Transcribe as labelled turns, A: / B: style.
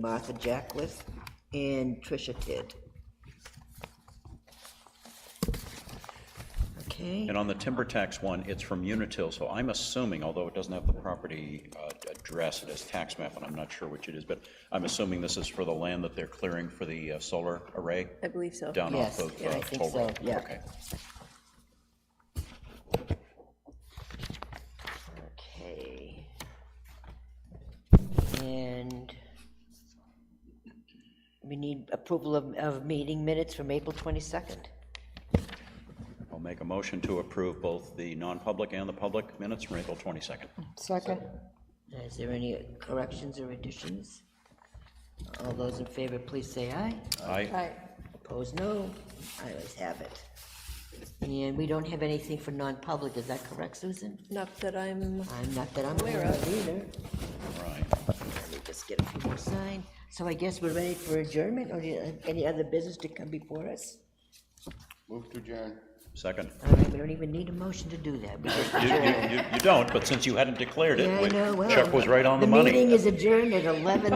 A: Martha Jackless, and Tricia Kidd. Okay,
B: And on the timber tax one, it's from Unitil, so I'm assuming, although it doesn't have the property uh, address, it has tax map, and I'm not sure which it is, but I'm assuming this is for the land that they're clearing for the uh, solar array
C: I believe so.
B: down off
A: Yes,
B: of
A: yeah, I
B: uh,
A: think
B: Toll Road.
A: so, yeah.
B: Okay.
A: okay. And we need approval of, of meeting minutes from April 22nd.
B: I'll make a motion to approve both the non-public and the public minutes from April 22nd.
D: Second.
A: Is there any corrections or additions? All those in favor, please say aye.
B: Aye.
D: Aye.
A: Opposed, no. I always have it. And we don't have anything for non-public, is that correct, Susan?
C: Not that I'm,
A: I'm not that I'm
C: Aware
A: aware
C: of.
A: of either.
B: Right.
A: Let me just get a few more signed. So I guess we're ready for adjournment, or do you have any other business to come before us?
E: Move to adjourn.
B: Second.
A: All right, we don't even need a motion to do that. We just-
B: You- You you- you don't, but since you hadn't declared
A: Yeah, I
B: it,
A: know, well,
B: Chuck was right on the
A: The
B: money.
A: meeting is adjourned at 11.